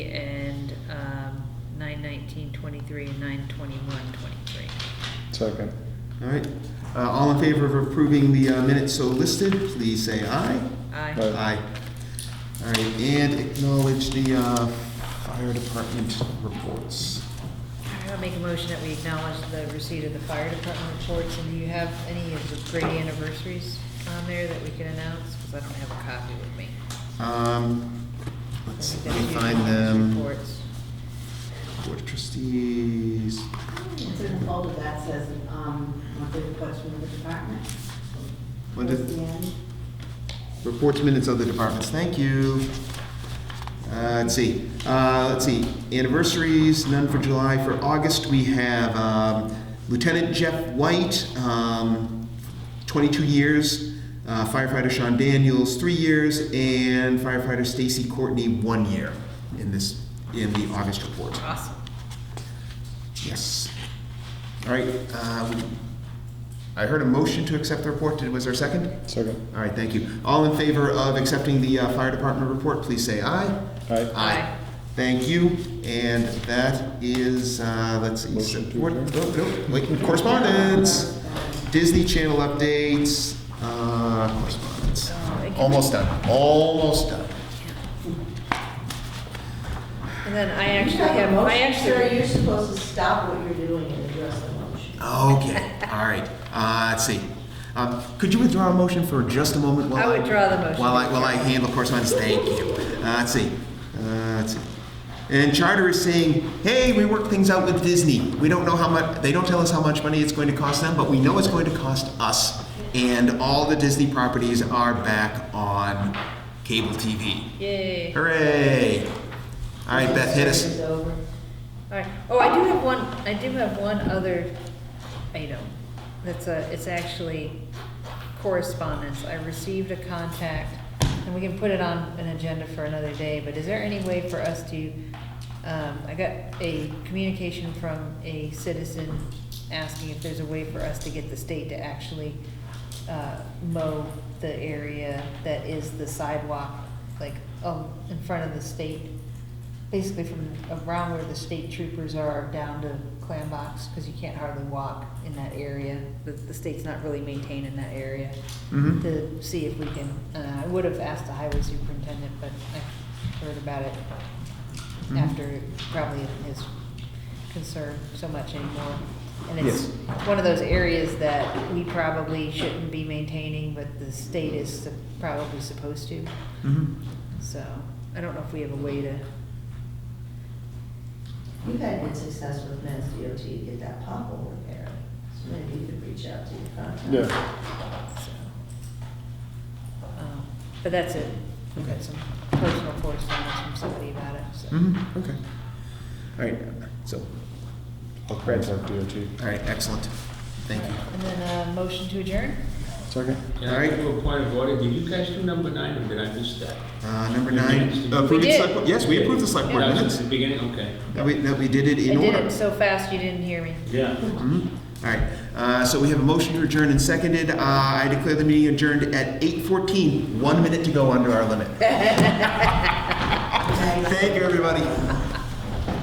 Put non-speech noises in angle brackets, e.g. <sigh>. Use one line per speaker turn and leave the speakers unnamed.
um, twenty-three and nine twenty-one twenty-three.
Second.
All right, Uh, all in favor of approving the uh, minutes so listed, please say aye.
Aye.
Aye.
Aye. All right, and acknowledge the uh, fire department reports.
I'll make a motion that we acknowledge the receipt of the fire department reports, and do you have any of the great anniversaries on there that we can announce? Because I don't have a copy with me.
Um,
I
Let's,
think
let
that's
me
usually
find
on these
them.
Reports.
Board of trustees.
It's in the folder that says, um, monthly reports from the department.
When
Towards
did-
the end.
Reports, minutes, other departments, thank you. Uh, Let's see, Uh, let's see, anniversaries, none for July, for August, we have um, Lieutenant Jeff White, um, 22 years, uh, firefighter Sean Daniels, three years, and firefighter Stacy Courtney, one year in this, in the August report.
Awesome.
Yes. All right, uh, we- I heard a motion to accept the report, Did- was there a second?
Second.
All right, thank you. All in favor of accepting the uh, fire department report, please say aye.
Aye.
Aye.
Thank you, and that is, uh, let's see.
Motion to
what- no, no, Wait, correspondence, Disney Channel updates, uh, correspondence.
Uh, it can-
Almost done, almost done.
And then I
You
actually
have a
have, I
motion, Sir,
actually,
you're supposed to stop what you're doing and address the motion.
Okay, all right, uh, let's see. Um, Could you withdraw a motion for just a moment while
I
I?
withdraw the motion.
While I, while I handle correspondence, thank you. Uh, let's see, uh, let's see. And Charter is saying, hey, we worked things out with Disney. We don't know how much, they don't tell us how much money it's going to cost them, but we know it's going to cost us. And all the Disney properties are back on cable TV.
yay.
Hooray! All right, Beth, hit us.
It's over.
All right. Oh, I do have one, I do have one other item. That's a, it's actually correspondence. I received a contact, and we can put it on an agenda for another day, but is there any way for us to, um, I got a communication from a citizen asking if there's a way for us to get the state to actually, uh, mow the area that is the sidewalk, like, um, in front of the state basically from around where the state troopers are down to Clambox, because you can't hardly walk in that area. The, the state's not really maintaining that area.
Mhm.
To see if we can, uh, I would have asked the highway superintendent, but I heard about it
Mhm.
after it probably isn't his concern so much anymore. And it's
Yes.
one of those areas that we probably shouldn't be maintaining, but the state is sup- probably supposed to.
Mhm.
So I don't know if we have a way to
You've had good success with Mass DOT to get that pothole repaired, so maybe you could reach out to your contact.
Yeah.
So, um, But that's it. We've got some personal correspondence from somebody about it, so.
Mhm, okay. All right, so,
I'll contact DOT.
all right, excellent. Thank you.
And then, uh, motion to adjourn?
Second.
Yeah, I do a point of order, did you guys do number nine, or did I miss that?
Uh, number
We
nine.
did.
approving
We did.
select board- Yes, we approved the select board
That was
minutes.
at the beginning, okay.
No, we, no, we did it
I
in
did
order.
it so fast you didn't hear me.
Yeah.
Mhm. All right, uh, so we have a motion to adjourn and seconded. Uh, I declare the meeting adjourned
<laughs>
at 8:14, one minute to go under our limit. Thank you, everybody.